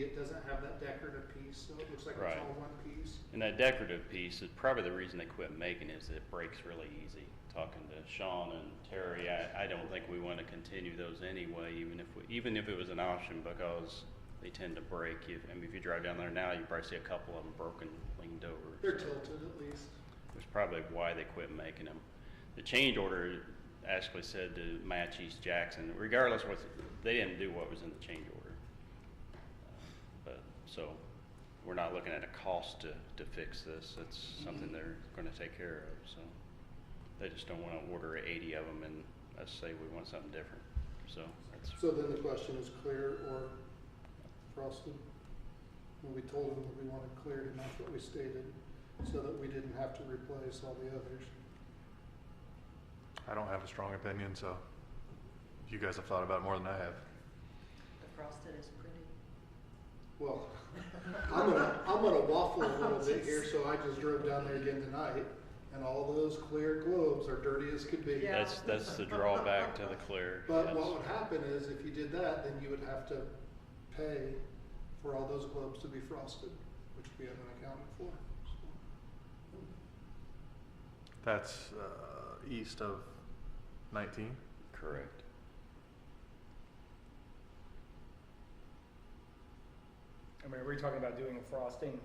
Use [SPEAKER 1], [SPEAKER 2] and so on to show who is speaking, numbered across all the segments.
[SPEAKER 1] it doesn't have that decorative piece, so it looks like it's
[SPEAKER 2] Right.
[SPEAKER 1] all one piece.
[SPEAKER 2] And that decorative piece is probably the reason they quit making it, is it breaks really easy. Talking to Sean and Terry, I, I don't think we want to continue those anyway, even if, we- even if it was an option, because they tend to break. If- I mean, if you drive down there now, you probably see a couple of them broken, leaned over.
[SPEAKER 1] They're
[SPEAKER 2] so
[SPEAKER 1] tilted at least.
[SPEAKER 2] That's probably why they quit making them. The change order actually said to match East Jackson, regardless what, they didn't do what was in the change order. But, so, we're not looking at a cost to, to fix this, it's something they're gonna take care of, so. They just don't wanna order eighty of them and us say we want something different, so that's,
[SPEAKER 1] So then the question is clear or frosted? And we told them that we wanted cleared and that's what we stated, so that we didn't have to replace all the others.
[SPEAKER 3] I don't have a strong opinion, so you guys have thought about it more than I have.
[SPEAKER 4] The frosted is pretty.
[SPEAKER 1] Well, I'm gonna, I'm gonna waffle a little bit here, so I just drove down there again tonight, and all those clear globes are dirty as could be.
[SPEAKER 4] Yeah.
[SPEAKER 2] that's, that's the drawback to the clear.
[SPEAKER 1] But
[SPEAKER 2] That's-
[SPEAKER 1] what would happen is if you did that, then you would have to pay for all those globes to be frosted, which we haven't accounted for. so.
[SPEAKER 3] That's uh, east of 19.
[SPEAKER 2] Correct.
[SPEAKER 5] I mean, are we talking about doing a frosting?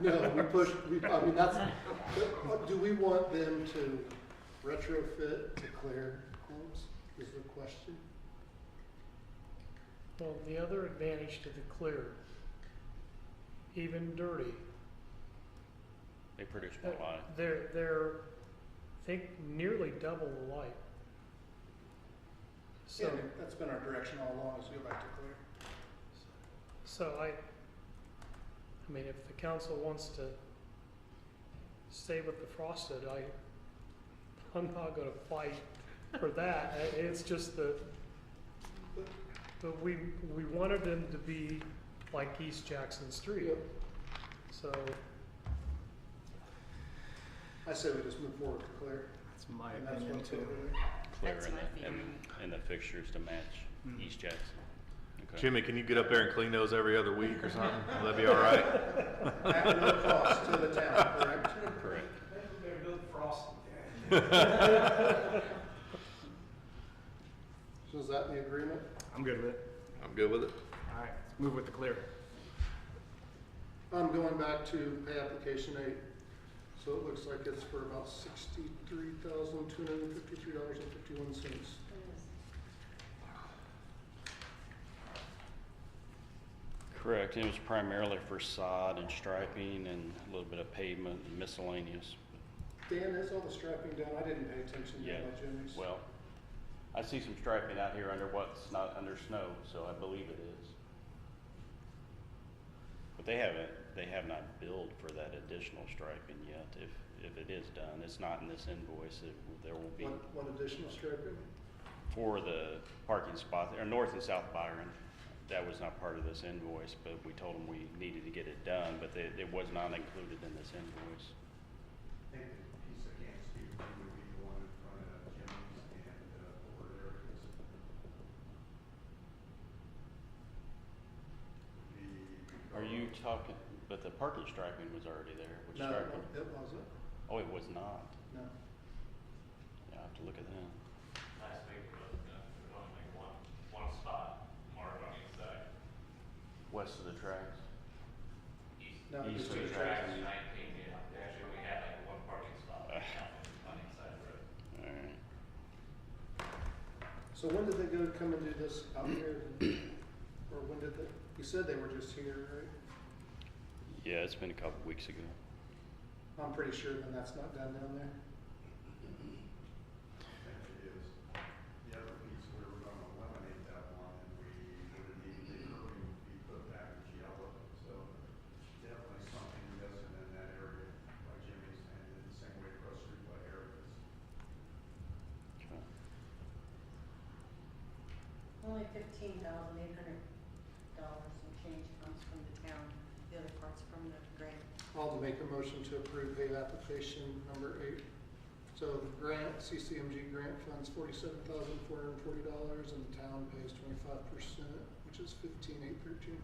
[SPEAKER 1] No, we push, we, I mean, that's, but do we want them to retrofit to clear globes is the question?
[SPEAKER 6] Well, the other advantage to the clear, even dirty,
[SPEAKER 2] They produce
[SPEAKER 6] uh,
[SPEAKER 2] more light.
[SPEAKER 6] they're, they're, I think nearly double the light. So,
[SPEAKER 1] And that's been our direction all along is go back to clear.
[SPEAKER 6] so I, I mean, if the council wants to stay with the frosted, I, I'm not gonna fight for that. I- It's just that, but we, we wanted them to be like East Jackson Street,
[SPEAKER 1] Yep.
[SPEAKER 6] so.
[SPEAKER 1] I say we just move forward to clear.
[SPEAKER 5] That's my
[SPEAKER 1] and that's
[SPEAKER 5] opinion
[SPEAKER 1] what's
[SPEAKER 5] too.
[SPEAKER 1] over there.
[SPEAKER 2] clear
[SPEAKER 4] That's
[SPEAKER 2] in
[SPEAKER 4] my
[SPEAKER 2] the, in,
[SPEAKER 4] feeling.
[SPEAKER 2] in the fixtures to match
[SPEAKER 5] Mm.
[SPEAKER 2] East Jackson. Okay.
[SPEAKER 3] Jimmy, can you get up there and clean those every other week or something? Will that be all right?
[SPEAKER 1] At no cost to the town, correct?
[SPEAKER 2] Correct.
[SPEAKER 1] So is that the agreement?
[SPEAKER 5] I'm good with it.
[SPEAKER 3] I'm good with it.
[SPEAKER 5] All right, let's move with the clear.
[SPEAKER 1] I'm going back to pay application eight. So it looks like it's for about sixty-three thousand, two hundred and fifty-three dollars and fifty-one cents.
[SPEAKER 2] Correct. It was primarily for sod and striping and a little bit of pavement and miscellaneous.
[SPEAKER 1] Dan, is all the strapping down? I didn't pay attention to
[SPEAKER 2] Yeah,
[SPEAKER 1] that, Jimmy's.
[SPEAKER 2] Well, I see some striping out here under what's not under snow, so I believe it is. But they haven't, they have not billed for that additional striping yet. If, if it is done, it's not in this invoice. It- There will be
[SPEAKER 1] One, one additional strapping?
[SPEAKER 2] for the parking spot, or north and south Byron. That was not part of this invoice, but we told them we needed to get it done, but it, it was not included in this invoice.
[SPEAKER 7] I think the piece I can't speak to would be the one in front of Jimmy's and uh, over there is the.
[SPEAKER 2] Are you talking, but the parking striping was already there, which
[SPEAKER 1] No,
[SPEAKER 2] striping?
[SPEAKER 1] it wasn't.
[SPEAKER 2] Oh, it was not.
[SPEAKER 1] No.
[SPEAKER 2] Yeah, I have to look at that.
[SPEAKER 8] Last week, we looked at, there's only like one, one spot marked on each side.
[SPEAKER 2] West of the tracks.
[SPEAKER 8] East,
[SPEAKER 1] No,
[SPEAKER 2] East
[SPEAKER 1] just
[SPEAKER 2] of
[SPEAKER 1] the
[SPEAKER 2] the
[SPEAKER 8] tracks
[SPEAKER 1] strapping.
[SPEAKER 8] nineteen, yeah, they actually only had like one parking spot
[SPEAKER 2] Uh.
[SPEAKER 8] on each side of the road.
[SPEAKER 2] All right.
[SPEAKER 1] So when did they go come and do this out here? Or when did they, you said they were just here, right?
[SPEAKER 2] Yeah, it's been a couple weeks ago.
[SPEAKER 1] I'm pretty sure then that's not done down there.
[SPEAKER 7] I think it is. The other piece, we were gonna eliminate that one and we would need the curving to be put back in yellow. So definitely something missing in that area by Jimmy's and then the same way across the street by Eric's.
[SPEAKER 2] Okay.
[SPEAKER 4] Only fifteen thousand eight hundred dollars and change comes from the town, the other part's from the grant.
[SPEAKER 1] I'll make a motion to approve pay application number eight. So the grant, CCMG grant funds forty-seven thousand four hundred and forty dollars and the town pays twenty-five percent, which is fifteen eight thirteen.